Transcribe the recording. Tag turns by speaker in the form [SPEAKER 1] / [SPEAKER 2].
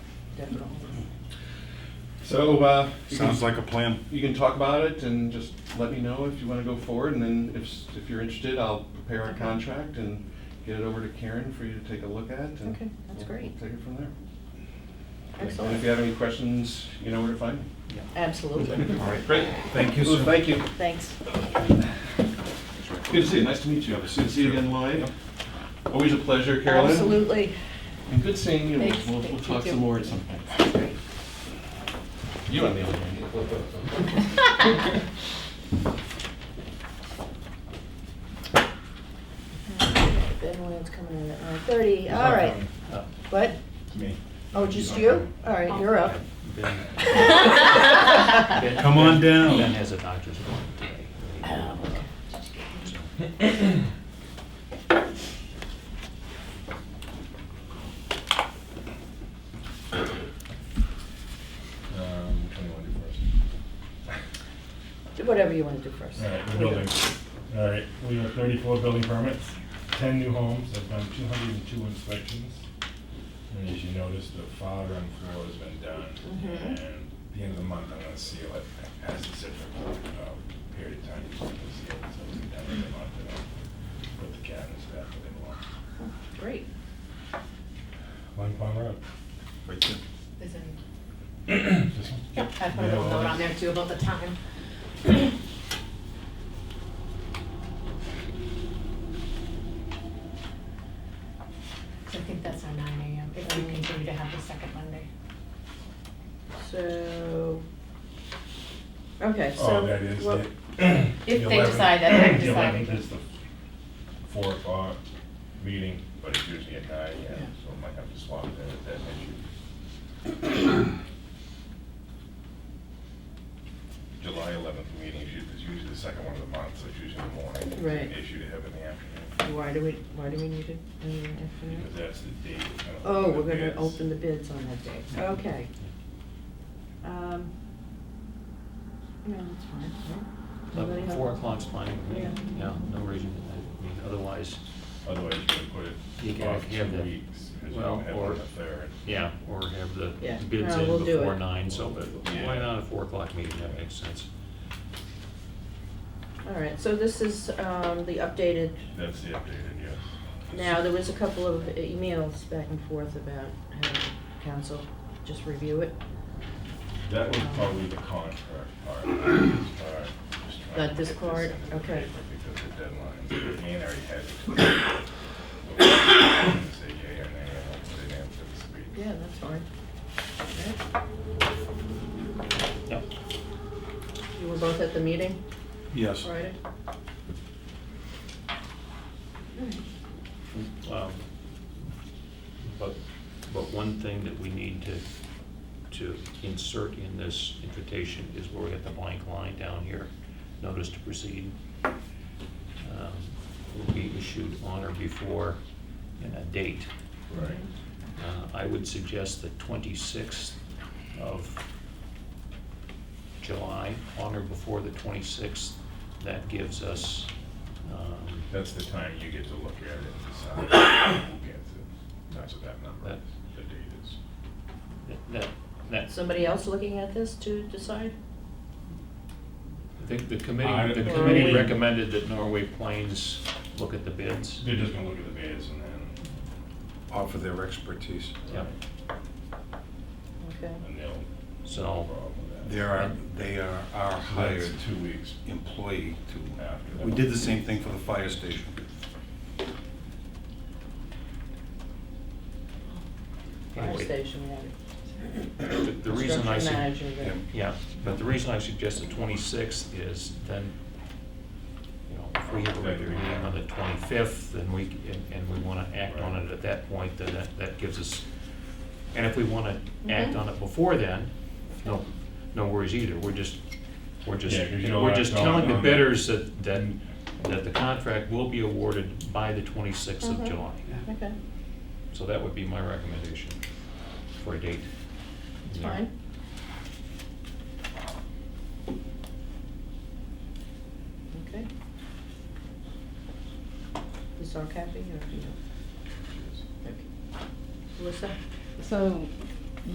[SPEAKER 1] at all.
[SPEAKER 2] So, uh, you can-
[SPEAKER 3] Sounds like a plan.
[SPEAKER 2] You can talk about it and just let me know if you want to go forward, and then if, s- if you're interested, I'll prepare a
[SPEAKER 1] Okay.
[SPEAKER 2] contract and get it over to Karen for you to take a look at. and
[SPEAKER 1] Okay, that's
[SPEAKER 2] we'll-
[SPEAKER 1] great.
[SPEAKER 2] we'll Take it from there. And if you
[SPEAKER 1] Excellent.
[SPEAKER 2] have any questions, you know where to find me.
[SPEAKER 1] Absolutely.
[SPEAKER 3] All right.
[SPEAKER 2] Great.
[SPEAKER 3] Thank you,
[SPEAKER 2] Well,
[SPEAKER 3] sir.
[SPEAKER 2] Thank you.
[SPEAKER 1] Thanks.
[SPEAKER 2] Good to see you, nice to meet you. Good to see you again, Lloyd. Always a pleasure, Carolyn.
[SPEAKER 1] Absolutely.
[SPEAKER 2] And good seeing you. We'll,
[SPEAKER 1] Thanks.
[SPEAKER 2] we'll
[SPEAKER 1] Thank
[SPEAKER 2] we'll
[SPEAKER 1] you,
[SPEAKER 2] talk
[SPEAKER 1] too.
[SPEAKER 2] some more at some point.
[SPEAKER 1] Great.
[SPEAKER 2] You on the other hand.
[SPEAKER 1] Ben Williams coming in at nine thirty, all right.
[SPEAKER 4] Oh.
[SPEAKER 1] What?
[SPEAKER 5] Me.
[SPEAKER 1] Oh, just you? All right, you're up.
[SPEAKER 5] Ben-
[SPEAKER 3] Come
[SPEAKER 5] Ben-
[SPEAKER 3] on down.
[SPEAKER 5] Ben
[SPEAKER 4] Um,
[SPEAKER 5] has a doctor's appointment today.
[SPEAKER 4] Um, which one do you want to do first?
[SPEAKER 1] Do whatever you want to do first.
[SPEAKER 4] All right, the building. All right, we have thirty-four building permits, ten new homes, I've done two hundred and two inspections. And as you notice, the fog on floor has been done,
[SPEAKER 1] Mhm.
[SPEAKER 4] and at the end of the month, I'm gonna seal it, as the certificate, uh, period of time, you can seal it, so it's done in the month, and I'll put the cabinets back where they belong.
[SPEAKER 1] Great.
[SPEAKER 4] One Palm Road.
[SPEAKER 3] Right there.
[SPEAKER 6] There's an-
[SPEAKER 4] This one?
[SPEAKER 6] I put a little note on there too about the time. So I think that's our nine AM, if we continue to have the second Monday.
[SPEAKER 1] So, okay, so.
[SPEAKER 4] Oh, that is
[SPEAKER 1] well,
[SPEAKER 4] it.
[SPEAKER 6] If
[SPEAKER 4] The
[SPEAKER 6] they
[SPEAKER 4] 11th
[SPEAKER 6] decide that, they
[SPEAKER 4] The
[SPEAKER 6] decide.
[SPEAKER 4] 11th is the four o'clock meeting, but it's usually at nine, yeah,
[SPEAKER 1] Yeah.
[SPEAKER 4] so I might have to swap that if that's an issue. July eleventh meeting is u- is usually the second one of the month, so it's usually in the morning. It's an
[SPEAKER 1] Right.
[SPEAKER 4] Issue to have in the afternoon,
[SPEAKER 1] Why do we, why do we need it in the
[SPEAKER 4] because
[SPEAKER 1] afternoon?
[SPEAKER 4] that's the date. we're gonna
[SPEAKER 1] Oh,
[SPEAKER 4] open the
[SPEAKER 1] we're gonna
[SPEAKER 4] bids.
[SPEAKER 1] open the bids on that day, okay. Um, Yeah, that's fine, right? Anybody
[SPEAKER 5] Eleven-
[SPEAKER 1] have-
[SPEAKER 5] Four o'clock's fine with me.
[SPEAKER 1] Yeah.
[SPEAKER 5] Yeah, no reason, I mean, otherwise,
[SPEAKER 4] Otherwise, you're gonna put it.
[SPEAKER 5] You gotta
[SPEAKER 4] off
[SPEAKER 5] have
[SPEAKER 4] two
[SPEAKER 5] the-
[SPEAKER 4] weeks, 'cause you
[SPEAKER 5] well,
[SPEAKER 4] don't have
[SPEAKER 5] or-
[SPEAKER 4] it on the third.
[SPEAKER 5] yeah, or have the
[SPEAKER 1] Yeah.
[SPEAKER 5] bids
[SPEAKER 1] No, we'll
[SPEAKER 5] in
[SPEAKER 1] do
[SPEAKER 5] before
[SPEAKER 1] it.
[SPEAKER 5] nine, so, but why
[SPEAKER 4] Yeah.
[SPEAKER 5] not a four o'clock meeting, that makes sense.
[SPEAKER 1] All right, so this is, um, the updated
[SPEAKER 4] That's the updated, yes.
[SPEAKER 1] Now, there was a couple of emails back and forth about having council just review it,
[SPEAKER 4] That was probably the contract part, not this part. Just trying
[SPEAKER 1] Not
[SPEAKER 4] to
[SPEAKER 1] this
[SPEAKER 4] get
[SPEAKER 1] part?
[SPEAKER 4] into the
[SPEAKER 1] Okay.
[SPEAKER 4] paper Because the deadline, me and Ari had. it. Say yea or nay, and hopefully they answer this week.
[SPEAKER 1] yeah, that's fine.
[SPEAKER 5] Yeah.
[SPEAKER 1] You were both at the meeting
[SPEAKER 3] Yes.
[SPEAKER 1] Friday?
[SPEAKER 5] Um, But, but one thing that we need to, to insert in this invitation is where we got the blank line down here, notice to proceed. um, Will be issued on or before and a date.
[SPEAKER 4] Right.
[SPEAKER 5] Uh, I would suggest the 26th of July, on or before the 26th. That gives us, um,
[SPEAKER 4] That's the time you get to look at it and decide who gets it. That's what that number is, the date is.
[SPEAKER 5] that- that, that
[SPEAKER 1] Somebody else looking at this to decide?
[SPEAKER 5] I think the
[SPEAKER 4] I-
[SPEAKER 5] committee, the
[SPEAKER 4] Norway-
[SPEAKER 5] committee recommended that Norway Plains look at the bids.
[SPEAKER 4] They're just gonna look at the bids and then,
[SPEAKER 3] Offer their expertise.
[SPEAKER 5] Yep.
[SPEAKER 1] Okay.
[SPEAKER 4] and they'll.
[SPEAKER 5] So-
[SPEAKER 4] Problem with that.
[SPEAKER 3] They are, they are our
[SPEAKER 4] So that's
[SPEAKER 3] hired
[SPEAKER 4] Two weeks
[SPEAKER 3] employee to.
[SPEAKER 4] after. that.
[SPEAKER 3] We did the same thing for the fire station.
[SPEAKER 1] Fire
[SPEAKER 5] Anyway,
[SPEAKER 1] station, yeah.
[SPEAKER 5] The the reason I,
[SPEAKER 1] Construction
[SPEAKER 5] sug-
[SPEAKER 1] manager, yeah.
[SPEAKER 5] yeah, but the reason I suggest the 26th is then, you know, if we have a regular meeting on the 25th, then we, c- and- and we want to act on it at that point, then that, that gives us, and if we want to act
[SPEAKER 1] Mhm.
[SPEAKER 5] on it before then, no, no worries either. We're just, we're just,
[SPEAKER 4] Yeah, 'cause you don't
[SPEAKER 5] we're
[SPEAKER 4] wanna
[SPEAKER 5] just
[SPEAKER 4] act on-
[SPEAKER 5] telling the
[SPEAKER 4] on-
[SPEAKER 5] bidders that, that, that the contract will be awarded by the 26th of
[SPEAKER 1] Mhm.
[SPEAKER 5] July.
[SPEAKER 1] Okay,
[SPEAKER 5] So that would be my recommendation for a date.
[SPEAKER 1] it's
[SPEAKER 5] Yeah.
[SPEAKER 1] fine. Okay. This all copy or? Okay. Melissa?
[SPEAKER 7] So